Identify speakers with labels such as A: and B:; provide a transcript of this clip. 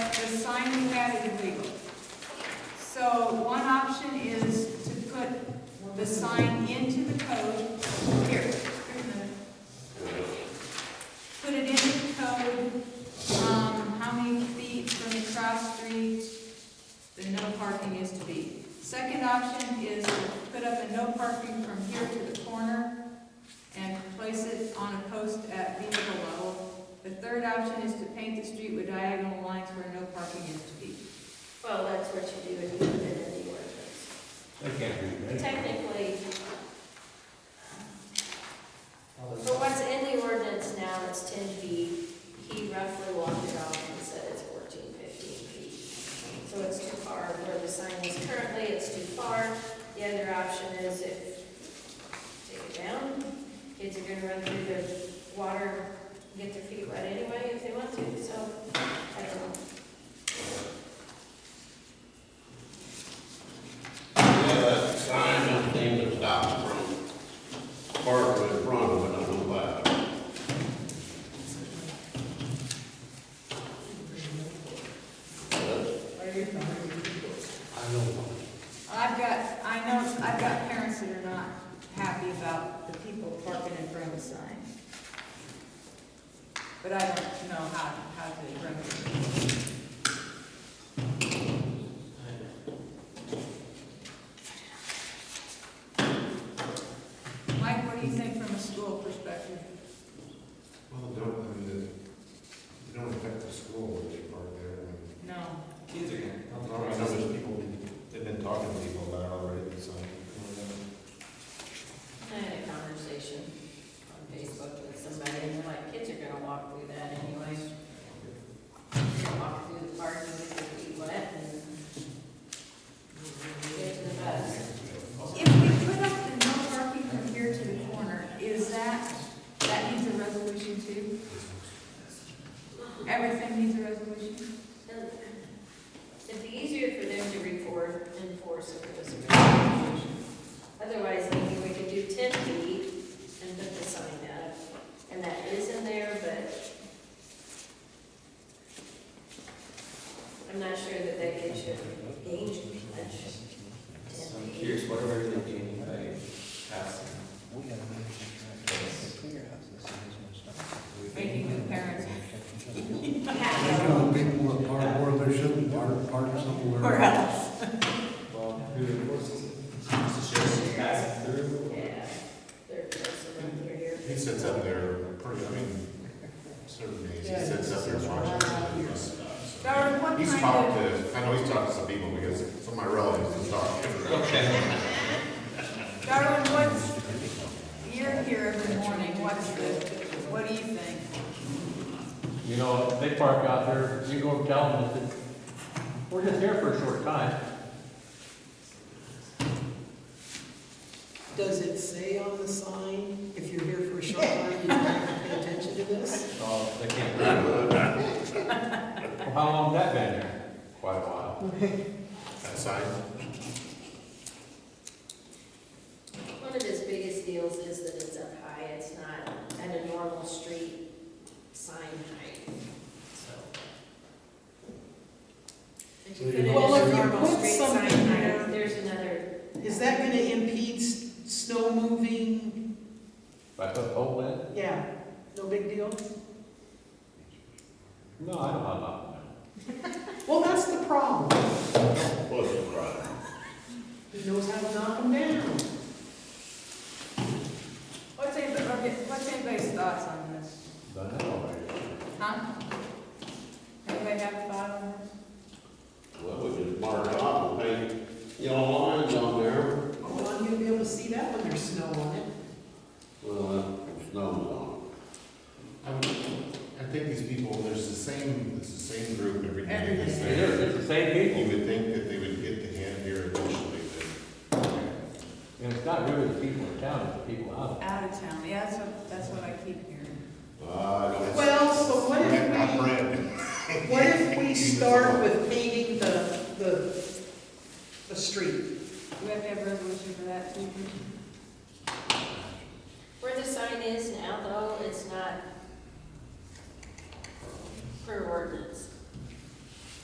A: finding that is illegal. So one option is to put the sign into the code, here, here's the- put it into the code, um, how many feet from the cross street the no parking is to be. Second option is to put up a no parking from here to the corner and place it on a post at vehicle level. The third option is to paint the street with diagonal lines where no parking is to be.
B: Well, that's what you do in the in the ordinance.
C: I can't read that.
B: Technically, but what's in the ordinance now is ten feet. He roughly walked it off and said it's 14, 15 feet. So it's too far where the sign is currently, it's too far. The other option is if, take it down. Kids are gonna run through their water, get their feet wet anyway if they want to, so, I don't know.
D: Yeah, that's the sign and thing that stops from parking in front of it, I don't know why. That's- I don't know.
A: I've got, I know, I've got parents that are not happy about the people parking in front of the sign. But I don't know how, how to remedy it. Mike, what do you think from a school perspective?
E: Well, don't, I mean, it- you don't affect the school if you park there. I mean,
A: No.
C: Kids are gonna.
E: I don't know, there's people, they've been talking to people about it already, so. um,
B: I had a conversation on Facebook with somebody, and they're like, kids are gonna walk through that anyway. They're gonna Walk through the park and get their feet wet and get to the bus.
A: If we put up the no parking from here to the corner, is that, that needs a resolution too? Everything needs a resolution?
B: It'd be easier for them to report, enforce if it was a violation. Otherwise, maybe we could do ten feet and put the sign up, and that is in there, but I'm not sure that that gets you gauged much.
C: So I'm curious, what are they gaining by passing? this?
A: Making the parents
B: Yeah.
A: Or else.
C: Well, who enforces it? Does the sheriff pass it through?
B: Yeah, they're close around here.
E: He sits up there, pretty, I mean, certain days, he sits up there watching. He's
A: Darwin, what
E: talked
A: kind of,
E: to, I know he's talked to some people because some of my relatives have talked.
C: Okay.
A: Darwin, what's, you're here every morning, what's the, what do you think?
F: You know, if they park out there, you go tell them that it- we're just here for a short time.
G: Does it say on the sign, if you're here for a short time, you don't have to pay attention to this?
F: So Oh, they can't. Well, how long that been there? Quite a while.
E: That sign,
B: One of his biggest deals is that it's up high, it's not at a normal street sign height, so. If you put it at
G: Well, if
B: a
G: you
B: normal
G: put
B: street sign
G: something there-
B: height, there's another,
G: Is that gonna impede s- snow moving?
F: If I put a hole in?
G: Yeah, no big deal.
F: No, I don't have nothing.
G: Well, that's the problem.
E: well, it's a crime.
G: He knows how to knock them down.
A: What's anybody, okay, what's anybody's thoughts on this?
F: Done that already.
A: Huh? Anybody have thoughts on this?
D: Well, we just mark it off and paint yellow lines on there.
G: Well, I'm gonna be able Oh, to see that when there's snow on it.
D: Well, that snow's on
E: I would- I think these people, there's the same, it's the same group every day.
A: Every day.
E: It's
F: It
E: there.
F: is, it's the same
E: You
F: people.
E: would think that they would get the hand here eventually,
F: And it's not really the people in town, it's the people out
A: Out of town, yeah, that's what, that's what I keep hearing.
E: but, uh, that's.
G: Well, so what if
E: Not
G: we,
E: Brad.
G: what if we start with painting the, the, the street?
A: Do we have to have a resolution for that too?
B: where the sign is now though, it's not per ordinance.